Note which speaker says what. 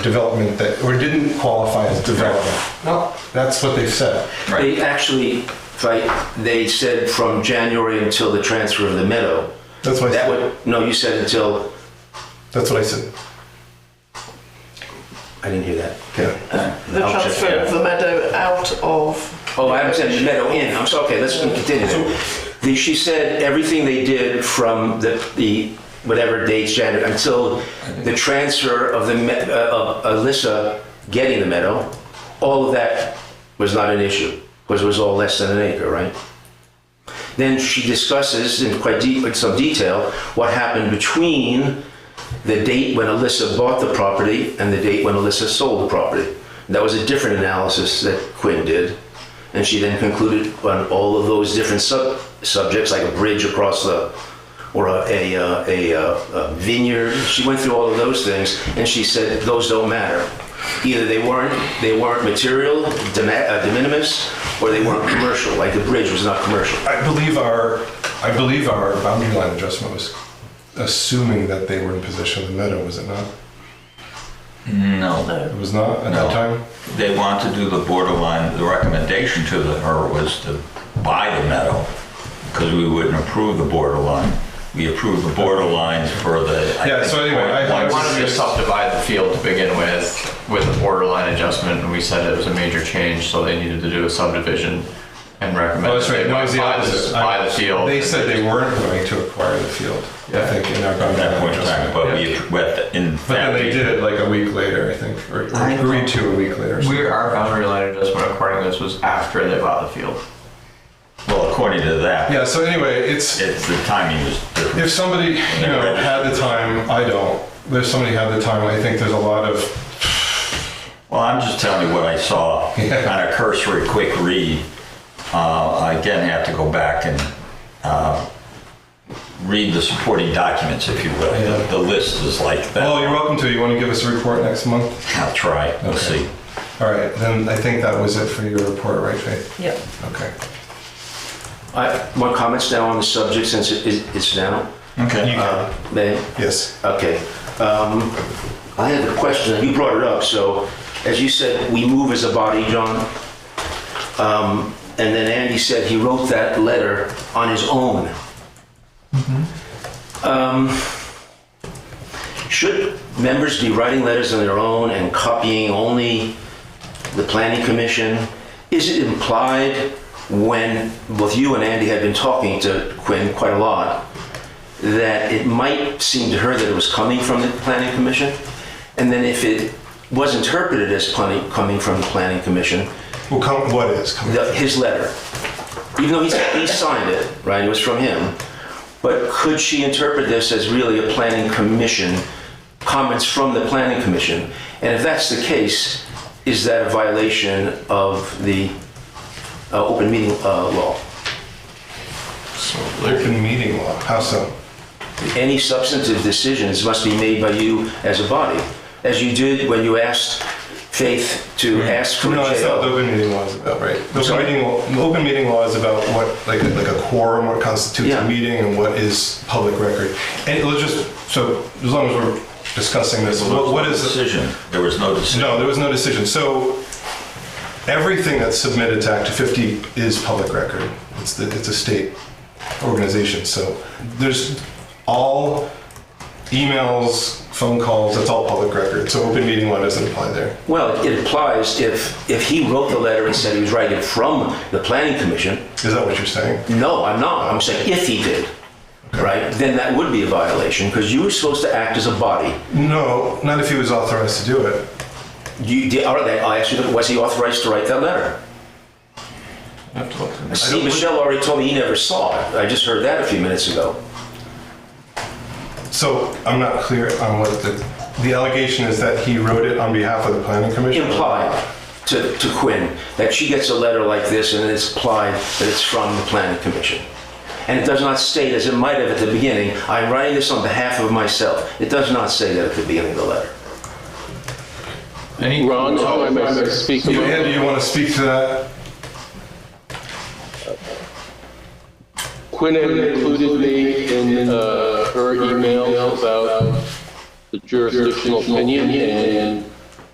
Speaker 1: development that, or didn't qualify as development.
Speaker 2: No,
Speaker 1: That's what they've said.
Speaker 3: Right.
Speaker 2: they actually, right, they said from January until the transfer of the meadow.
Speaker 1: That's what Oh, I
Speaker 2: That
Speaker 1: said.
Speaker 2: would, no, you said until,
Speaker 1: That's what I said.
Speaker 2: I didn't hear that.
Speaker 1: Yeah.
Speaker 4: The
Speaker 2: I'll check
Speaker 4: transfer
Speaker 2: it
Speaker 4: of
Speaker 2: out.
Speaker 4: the meadow out of.
Speaker 2: Oh, I haven't said the meadow in, I'm sorry, okay, let's continue. then. The- She said everything they did from the, the, whatever dates, January, until the transfer of the, me- uh, of Alyssa getting the meadow, all of that was not an issue, because it was all less than an acre, right? Then she discusses in quite deep, in some detail, what happened between the date when Alyssa bought the property and the date when Alyssa sold the property. That was a different analysis that Quinn did. And she then concluded on all of those different sub, subjects, like a bridge across the, or a, a, uh, a, uh, a vineyard. She went through all of those things and she said, those don't matter. Either they weren't, they weren't material, de, uh, de minimis, or they weren't commercial, like the bridge was not commercial.
Speaker 1: I believe our, I believe our boundary line adjustment was assuming that they were in possession of the meadow, was it not?
Speaker 3: No,
Speaker 1: It was not at that
Speaker 3: No.
Speaker 1: time?
Speaker 3: they want to do the borderline, the recommendation to the, her was to buy the meadow, because we wouldn't approve the borderline. We approved the borderline for the. I
Speaker 1: Yeah,
Speaker 3: think,
Speaker 1: so anyway, I-
Speaker 3: point
Speaker 5: I
Speaker 3: one
Speaker 5: wanted to
Speaker 3: six.
Speaker 5: subdivide the field to begin with, with a borderline adjustment, and we said it was a major change, so they needed to do a subdivision and recommend.
Speaker 1: Oh, that's
Speaker 5: that
Speaker 1: right,
Speaker 5: they
Speaker 1: no, it was the
Speaker 5: buy the-
Speaker 1: opposite.
Speaker 5: Buy the field.
Speaker 1: They said they weren't going to acquire the field, I
Speaker 5: Yeah.
Speaker 1: think, in our
Speaker 3: At
Speaker 1: boundary
Speaker 3: that
Speaker 1: line
Speaker 3: point in time,
Speaker 1: adjustment. But
Speaker 3: but we, but in
Speaker 1: then
Speaker 3: fact,
Speaker 1: they did it like a week later, I think, or
Speaker 5: I
Speaker 1: agreed to a week later.
Speaker 5: We, our boundary line adjustment according to this was after they bought the field.
Speaker 3: well, according to that,
Speaker 1: Yeah, so anyway, it's,
Speaker 3: it's, the timing was different.
Speaker 1: if somebody you know had the time i don't there's somebody had the time i think there's a lot of
Speaker 3: Well, I'm just telling you what I saw on a cursory, quick read. Uh, I again have to go back and uh, read the supporting documents, if you will. The- The list is like that.
Speaker 1: well oh, you're welcome to you want to give us a report next month
Speaker 3: I'll try, we'll
Speaker 1: Okay.
Speaker 3: see.
Speaker 1: all right then i think that was it for your report right faith
Speaker 4: Yeah.
Speaker 1: okay
Speaker 2: I, my comments now on the subject since it is, it's now,
Speaker 3: Okay.
Speaker 2: uh, may,
Speaker 1: yes
Speaker 2: Okay. Um, I had a question, and you brought it up, so as you said, we move as a body, John. Um, And then Andy said he wrote that letter on his own. Um, Should members be writing letters on their own and copying only the planning commission? Is it implied when both you and Andy had been talking to Quinn quite a lot? that it might seem to her that it was coming from the planning commission, and then if it was interpreted as planning, coming from the planning commission,
Speaker 1: well come what is coming
Speaker 2: the, his letter, even though he, he signed it, right, it was from him, but could she interpret this as really a planning commission, comments from the planning commission? And if that's the case, is that a violation of the uh, open meeting uh, law?
Speaker 1: open meeting law how so
Speaker 2: any substantive decisions must be made by you as a body, as you did when you asked Faith to ask for a
Speaker 1: Mm. no that's not what the
Speaker 2: JO.
Speaker 1: open meeting law is about right the open
Speaker 2: Sorry?
Speaker 1: meeting, law, the open meeting law is about what like like a quorum what constitutes
Speaker 2: Yeah.
Speaker 1: a meeting and what is public record and let's just so as long as we're discussing this what, what is
Speaker 3: Decision, there was no decision.
Speaker 1: No, there was no decision. So everything that's submitted to Act 50 is public record. It's, the, it's a state organization. So there's all emails, phone calls, that's all public record. So open meeting law doesn't apply there.
Speaker 2: Well, it implies if, if he wrote the letter and said he was writing it from the planning commission,
Speaker 1: Is that what you're saying?
Speaker 2: no, I'm not, I'm saying if he did, right? Then that would be a violation, because you were supposed to act as a body.
Speaker 1: No, not if he was authorized to do it.
Speaker 2: You, did- all right, I asked you, was he authorized to write that letter?
Speaker 5: I have to look through this.
Speaker 2: See, Michelle already told me he never saw it, I just heard that a few minutes ago.
Speaker 1: So I'm not clear on what the, the allegation is that he wrote it on behalf of the planning commission.
Speaker 2: implied to, to Quinn that she gets a letter like this and it's implied that it's from the planning commission. And it does not state, as it might have at the beginning, I'm writing this on behalf of myself. It does not say that at the beginning of the letter.
Speaker 5: Any-
Speaker 6: Ron, how am I speaking?
Speaker 1: You, Andy, you want to speak to that?
Speaker 6: Quinn had included me in uh, her email about the jurisdictional opinion, and